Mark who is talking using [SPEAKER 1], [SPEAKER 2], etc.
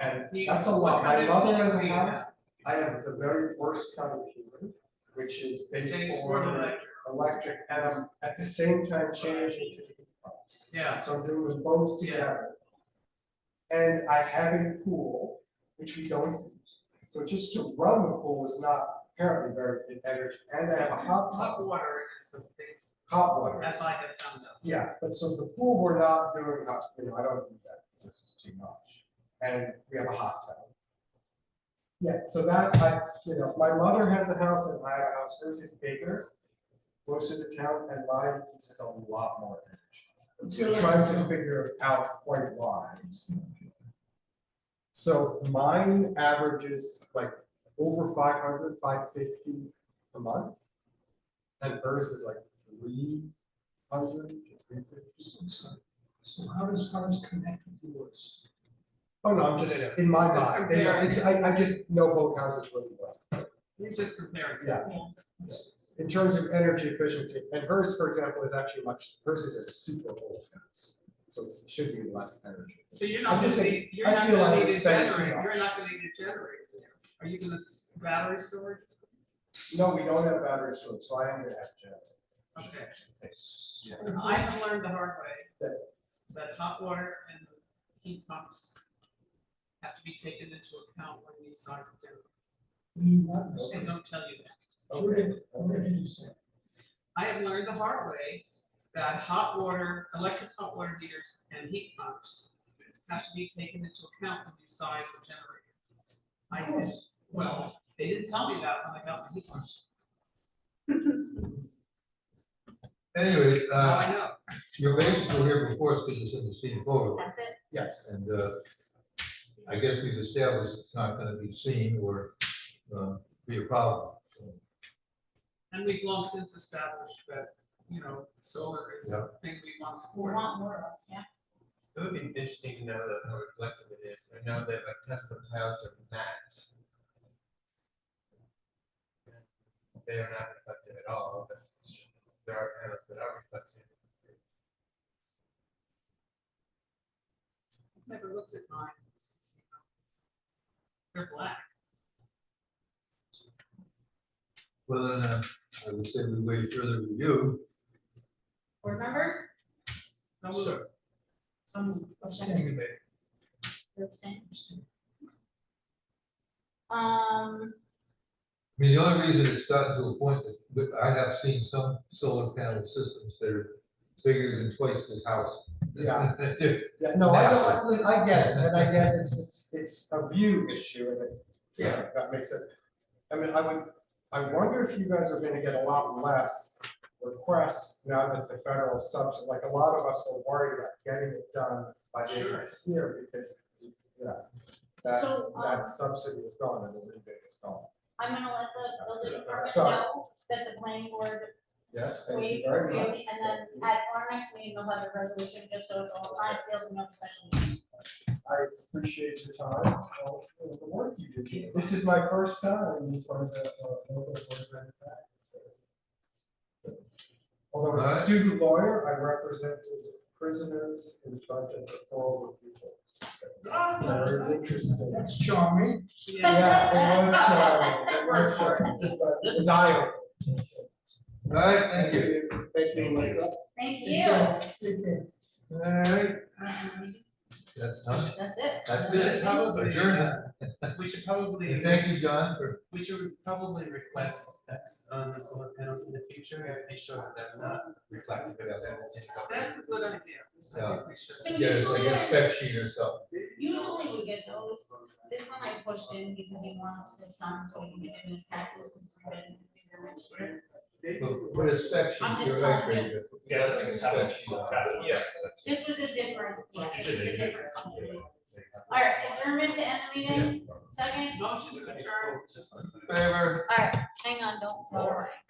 [SPEAKER 1] And
[SPEAKER 2] You-
[SPEAKER 1] that's a
[SPEAKER 2] what
[SPEAKER 1] lot,
[SPEAKER 2] kind
[SPEAKER 1] my
[SPEAKER 2] of
[SPEAKER 1] mother
[SPEAKER 2] dog
[SPEAKER 1] has a
[SPEAKER 2] do you
[SPEAKER 1] house,
[SPEAKER 2] have?
[SPEAKER 1] I have the very worst kind of humor, which is based
[SPEAKER 2] Things for the
[SPEAKER 1] on
[SPEAKER 2] electric,
[SPEAKER 1] electric, and I'm at the same time changing to heat pumps.
[SPEAKER 2] yeah,
[SPEAKER 1] So I'm doing both
[SPEAKER 2] Yeah.
[SPEAKER 1] together. And I have a pool, which we don't use, so just to run the pool is not apparently very good energy, and I have a hot tub,
[SPEAKER 2] hot water is a big,
[SPEAKER 1] hot water.
[SPEAKER 2] that's I have found out.
[SPEAKER 1] Yeah, but so the pool, we're not doing, hot- uh, you know, I don't do that, this is too much, and we have a hot tub. Yeah, so that, I, you know, my mother has a house and I have a house, hers is bigger, closer to town, and mine uses a lot more energy. I'm Trying to figure out quite why. So mine averages like over 500, 550 a month. And hers is like three hundred to three fifty.
[SPEAKER 3] So how does ours connect with yours?
[SPEAKER 1] Oh, no, I'm just, in my
[SPEAKER 2] Just
[SPEAKER 1] mind, they are- it's, I, I just know both houses really well.
[SPEAKER 2] You just compare. it.
[SPEAKER 1] Yeah. In terms of energy efficiency, and hers, for example, is actually much, hers is a super old house, so it's- it should be less energy.
[SPEAKER 2] So you're not
[SPEAKER 1] I'm just
[SPEAKER 2] gonna
[SPEAKER 1] saying,
[SPEAKER 2] need, you're
[SPEAKER 1] I
[SPEAKER 2] not
[SPEAKER 1] feel like
[SPEAKER 2] gonna
[SPEAKER 1] I'm
[SPEAKER 2] need a
[SPEAKER 1] spending too
[SPEAKER 2] generator, you're
[SPEAKER 1] much.
[SPEAKER 2] not gonna need a generator. Are you gonna s- battery storage?
[SPEAKER 1] No, we don't have battery storage, so I am gonna have to.
[SPEAKER 2] Okay,
[SPEAKER 1] Yeah.
[SPEAKER 2] I have learned the hard way
[SPEAKER 1] That-
[SPEAKER 2] that hot water and heat pumps have to be taken into account when you size a generator.
[SPEAKER 3] We want this.
[SPEAKER 2] And don't tell you that.
[SPEAKER 1] Okay,
[SPEAKER 3] What
[SPEAKER 1] okay.
[SPEAKER 3] did you say?
[SPEAKER 2] I have learned the hard way that hot water, electric hot water heaters and heat pumps have to be taken into account when you size the generator. I did, well, they didn't tell me that when I got my heat pumps.
[SPEAKER 4] Anyway,
[SPEAKER 2] Now
[SPEAKER 4] uh,
[SPEAKER 2] I know.
[SPEAKER 4] you're basically here before us because it's in the same photo,
[SPEAKER 5] That's it.
[SPEAKER 1] Yes,
[SPEAKER 4] and, uh, I guess we've established it's not gonna be seen or, uh, be a problem.
[SPEAKER 2] And we've long since established that, you know, solar is a thing we want to
[SPEAKER 5] We
[SPEAKER 2] support.
[SPEAKER 5] want more of, yeah.
[SPEAKER 6] It would be interesting to know that how reflective it is. I know that uh, like Tesla clouds are matte. They are not reflective at all, but there are panels that are reflective.
[SPEAKER 2] I've Never looked at mine. They're black.
[SPEAKER 4] Well, then, uh, I would say we wait further review.
[SPEAKER 5] Board members,
[SPEAKER 2] No, look,
[SPEAKER 5] some abstain,
[SPEAKER 4] Anyway,
[SPEAKER 5] you're abstaining. Um,
[SPEAKER 4] I mean, the only reason it's gotten to a point that, that I have seen some solar panel systems that are bigger than twice this house.
[SPEAKER 1] Yeah. yeah, no, I don't, I I get it, and I get it's, it's, it's a view issue, and it, yeah, that makes sense. I mean, I would, I wonder if you guys are gonna get a lot less requests now that the federal subsidy, like, a lot of us were worried about getting it done by the end of this year, because, yeah. That,
[SPEAKER 5] So, um,
[SPEAKER 1] that subsidy is gone, and the rebate is gone.
[SPEAKER 5] I'm gonna let the building department
[SPEAKER 1] Sorry.
[SPEAKER 5] know that the planning board
[SPEAKER 1] Yes, thank you
[SPEAKER 5] waived
[SPEAKER 1] very
[SPEAKER 5] review,
[SPEAKER 1] much.
[SPEAKER 5] and then at our next meeting, they'll have a resolution, just so it's all signed, sealed, and no special meeting.
[SPEAKER 1] I appreciate your time, all of the work you did. This is my first time in front of the, uh, local board of Ed. Although as a
[SPEAKER 4] Alright.
[SPEAKER 1] student lawyer, I represented prisoners in front of all the people. Very interesting.
[SPEAKER 3] That's charming.
[SPEAKER 2] Ah! yeah,
[SPEAKER 1] Yeah, it was, uh, it was, uh, but it was eye-opening.
[SPEAKER 4] All right, thank you.
[SPEAKER 1] Thank you, Melissa.
[SPEAKER 5] Thank
[SPEAKER 3] Take
[SPEAKER 5] you.
[SPEAKER 3] care. Take care.
[SPEAKER 4] All right,
[SPEAKER 5] Um,
[SPEAKER 4] that's, huh?
[SPEAKER 5] That's it.
[SPEAKER 4] that's it.
[SPEAKER 6] Probably.
[SPEAKER 4] Adjourned.
[SPEAKER 6] We should probably,
[SPEAKER 4] And thank you, John, for
[SPEAKER 6] we should probably request specs on the solar panels in the future and make sure that they're not reflective of the city
[SPEAKER 2] that's
[SPEAKER 6] government.
[SPEAKER 2] a good idea. I think we should.
[SPEAKER 5] So
[SPEAKER 4] Yeah, it's like
[SPEAKER 5] usually,
[SPEAKER 4] a spec sheet or something.
[SPEAKER 5] usually we get those, this one I pushed in because he wanted some time, so he can get in his taxes, because he didn't do it next year.
[SPEAKER 4] But Put a spec
[SPEAKER 5] I'm
[SPEAKER 4] sheet,
[SPEAKER 5] just
[SPEAKER 4] you're right,
[SPEAKER 5] telling
[SPEAKER 4] Brenda. Yeah, I think a spec sheet.
[SPEAKER 6] Yeah.
[SPEAKER 5] This was a different, yeah, this was a different company. All right, adjournment to end the meeting, second,
[SPEAKER 2] Motion to adjourn.
[SPEAKER 4] Favor?
[SPEAKER 5] all right, hang on, don't. vote.